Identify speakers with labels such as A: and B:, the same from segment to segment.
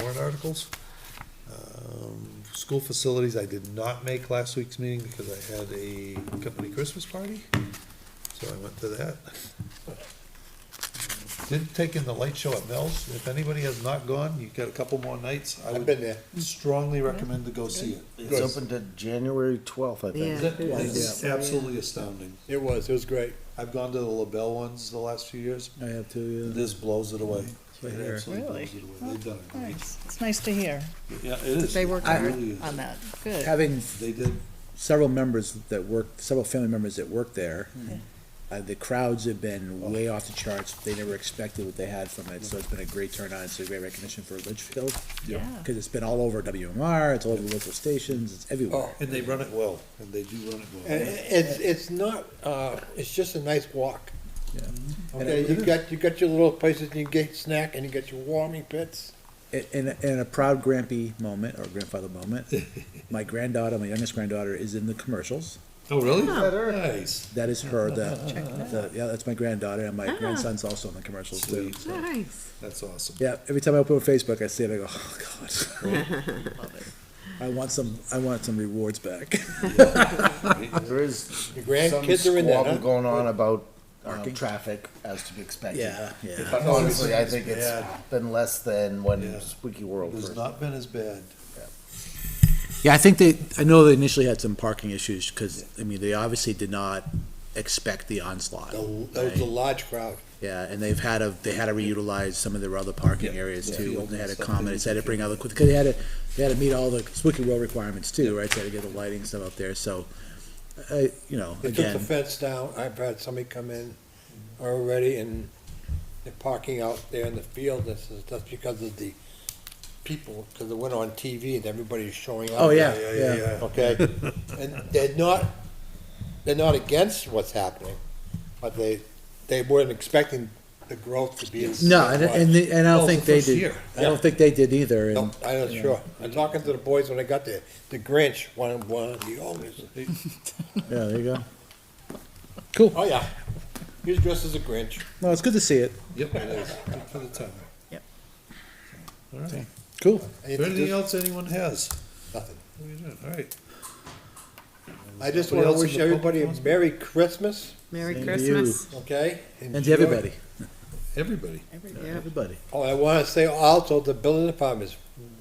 A: warrant articles. Um, School facilities, I did not make last week's meeting because I had a company Christmas party, so I went to that. Did take in the light show at Mills. If anybody has not gone, you've got a couple more nights. I
B: I've
A: would
B: been there.
A: strongly recommend to go see it.
C: It's open to January twelfth, I
A: Is
C: think.
A: it-
D: Yeah, I think
A: It's
D: so, yeah.
A: absolutely astounding.
B: It was, it was great.
A: I've gone to the LaBelle ones the last few years.
E: I have to, yeah.
A: This blows it away. It
E: Sure.
A: absolutely
D: Really?
A: blows it away. They've done it.
D: Nice. It's nice to hear.
A: Yeah, it is.
D: They worked
A: It
D: hard
A: really is.
D: on that. Good.
E: Having
A: They did.
E: several members that work, several family members that work there, uh, the crowds have been way off the charts. They never expected what they had from it, so it's been a great turnout. It's a great recognition for Litchfield.
D: Yeah.
E: Cause it's been all over WMR, it's all over local stations, it's everywhere.
A: And they run it well, and they do run it
B: And
A: well.
B: it's, it's not, uh, it's just a nice walk.
E: Yeah.
B: Okay, you got, you got your little places, you get snack, and you got your warming pits.
E: In, in, in a proud grampy moment, or grandfather moment, my granddaughter, my youngest granddaughter is in the commercials.
A: Oh, really? Nice.
E: That is her, the, the, yeah, that's my granddaughter, and my grandson's also in the commercials too.
A: Sweet.
D: Nice.
A: That's awesome.
E: Yeah, every time I open Facebook, I see it, I go, oh, God. I want some, I want some rewards back.
C: There is
B: Your
C: some
B: grandkids are in there,
C: squabble
B: huh?
C: going on about, uh,
E: Parking.
C: traffic as to be expected.
E: Yeah, yeah.
C: But honestly, I think it's
A: Yeah.
C: been less than
A: Yeah.
C: when Squeaky World
A: It has
C: first.
A: not been as bad.
E: Yeah, I think they, I know they initially had some parking issues, because, I mean, they obviously did not expect the onslaught.
A: Oh,
B: The- That was a
E: right?
B: large crowd.
E: Yeah, and they've had a, they had to reutilize some of their other parking
A: Yeah.
E: areas
A: Yeah.
E: too, and they had to
A: Stuff
E: comment,
A: they
E: it's had to bring other, because they had to, they had to meet all the Squeaky Row requirements too, right? They had to get the lighting and stuff up there, so, I, you know,
B: They took the
E: again,
B: fence down, I've had somebody come in already, and they're parking out there in the field, this is, that's because of the people, because it went on TV and everybody's showing up.
E: oh, yeah,
A: Yeah, yeah,
E: yeah.
A: yeah.
B: okay? And they're not, they're not against what's happening, but they, they weren't expecting the growth to be. as
E: No, and,
B: much.
E: and, the- and I
A: Well,
E: don't
A: it's
E: think
A: the
E: they
A: first
E: did,
A: year.
E: I don't think they did either,
B: No,
E: and,
B: I'm not sure. I'm talking to the boys when I got there, the Grinch, one of, one of the owners.
E: yeah, there you go.
B: Oh, yeah, he was dressed as a Grinch.
E: No, it's good to see it.
A: Yep, it is. Good for the time.
D: Yep.
A: All right.
E: Cool.
A: Anything else anyone has?
B: Nothing.
A: What are you doing? All right.
B: I just
A: Anybody
B: wanna
A: else in
B: wish
A: the public
B: everybody a
A: wants-
B: Merry Christmas,
D: Merry
E: Same to you.
D: Christmas.
B: okay?
E: And
B: Enjoy.
E: to everybody,
A: Everybody.
D: Yeah.
E: everybody.
B: Oh, I wanna say also, the building department is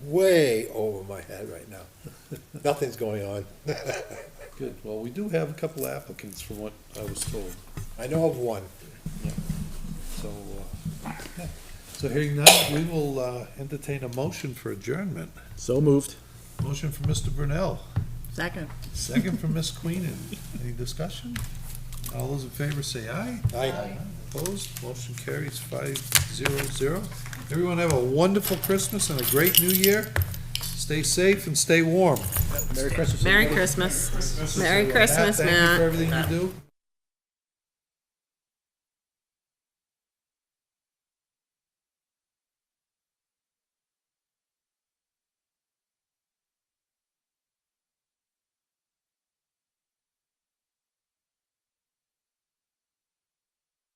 B: way over my head right now. Nothing's going on.
A: Good. Well, we do have a couple applicants from what I was told,
B: I know of one.
A: so, uh, yeah. so hearing none, we will uh, entertain a motion for adjournment.
E: So moved.
A: Motion for Mr. Brunel.
D: Second.
A: Second from Ms. Queenan. Any discussion? All those in favor say aye.
B: I,
A: Opposed? Motion carries five zero zero. Everyone have a wonderful Christmas and a great new year. Stay safe and stay warm.
E: Merry Christmas.
D: Merry Christmas. Merry
A: Matt,
D: Christmas,
A: Thank you for
D: Matt.
A: everything you do.